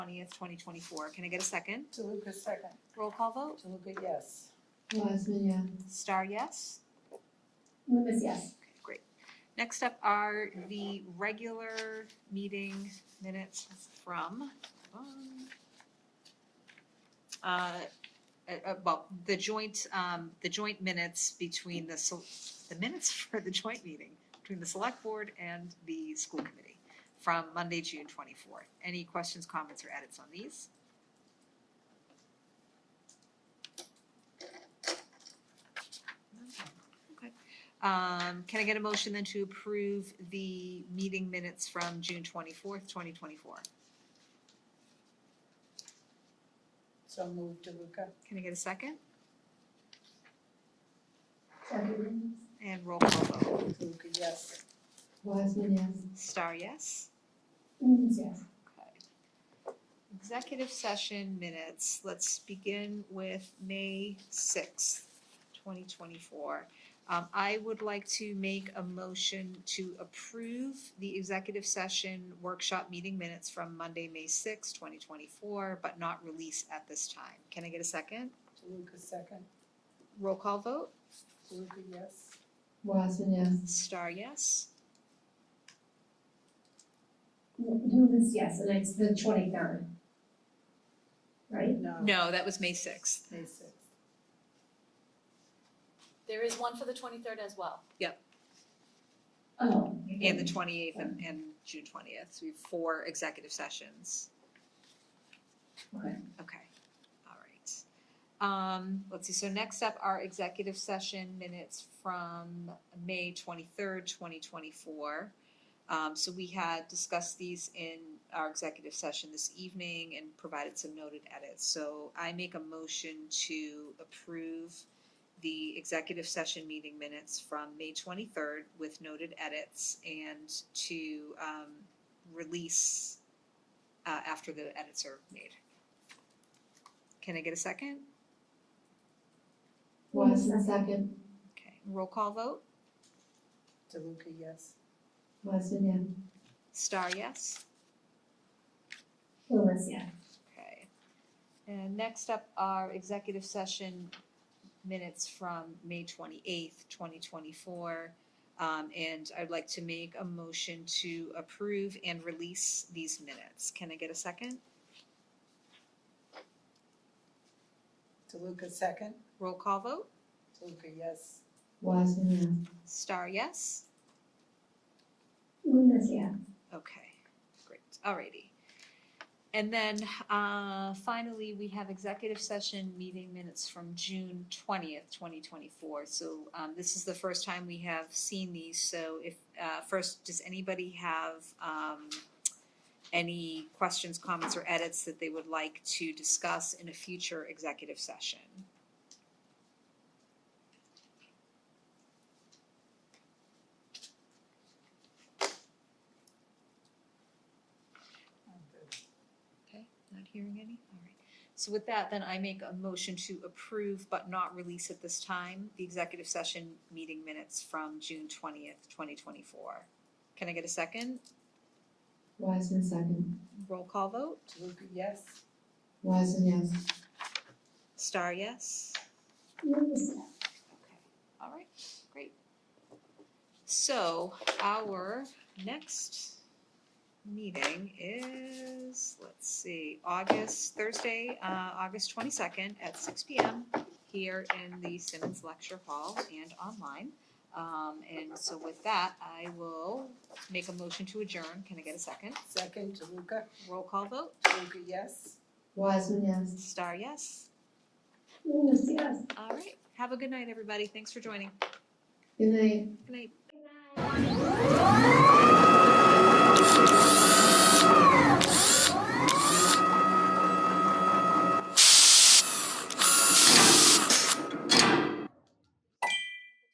twentieth, twenty twenty-four. Can I get a second? DeLuca, second. Roll call vote. DeLuca, yes. Wiseman, yeah. Star, yes? Loomis, yes. Okay, great. Next up are the regular meeting minutes from, um, uh, uh, uh, well, the joint, um, the joint minutes between the, sel- the minutes for the joint meeting between the select board and the school committee from Monday, June twenty-fourth. Any questions, comments, or edits on these? Okay. Um, can I get a motion then to approve the meeting minutes from June twenty-fourth, twenty twenty-four? So move DeLuca. Can I get a second? Second Loomis. And roll call vote. DeLuca, yes. Wiseman, yes. Star, yes? Loomis, yes. Okay. Executive session minutes, let's begin with May sixth, twenty twenty-four. Um, I would like to make a motion to approve the executive session workshop meeting minutes from Monday, May sixth, twenty twenty-four, but not release at this time. Can I get a second? DeLuca, second. Roll call vote, DeLuca, yes. Wiseman, yes. star yes. Loomis, yes, and it's the twenty-third. Right? No. No, that was May sixth. May sixth. There is one for the twenty-third as well. Oh. And the twenty-eighth and, and June twentieth, so we have four executive sessions. Okay. Okay, all right. Um, let's see, so next up are executive session minutes from May twenty-third, twenty twenty-four. Um, so we had discussed these in our executive session this evening and provided some noted edits. So I make a motion to approve the executive session meeting minutes from May twenty-third with noted edits and to, um, release uh, after the edits are made. Can I get a second? Wiseman, second. Okay, roll call vote. DeLuca, yes. Wiseman, yes. Star, yes. Loomis, yes. Okay. And next up are executive session minutes from May twenty-eighth, twenty twenty-four. Um, and I'd like to make a motion to approve and release these minutes. Can I get a second? DeLuca, second. Roll call vote. DeLuca, yes. Wiseman, yes. Star, yes. Loomis, yes. Okay, great, alrighty. And then, uh, finally, we have executive session meeting minutes from June twentieth, twenty twenty-four. So, um, this is the first time we have seen these, so if, uh, first, does anybody have, um, any questions, comments, or edits that they would like to discuss in a future executive session? Okay, not hearing any, alright. So with that, then I make a motion to approve but not release at this time the executive session meeting minutes from June twentieth, twenty twenty-four. Can I get a second? Wiseman, second. Roll call vote? DeLuca, yes. Wiseman, yes. Star, yes? Loomis, yes. Okay, all right, great. So our next meeting is, let's see, August, Thursday, uh, August twenty-second at six P M here in the Simmons Lecture Hall and online. Um, and so with that, I will make a motion to adjourn. Can I get a second? Second, DeLuca. Roll call vote. DeLuca, yes. Wiseman, yes. Star, yes. Loomis, yes. All right, have a good night, everybody. Thanks for joining. Good night. Good night. Good night.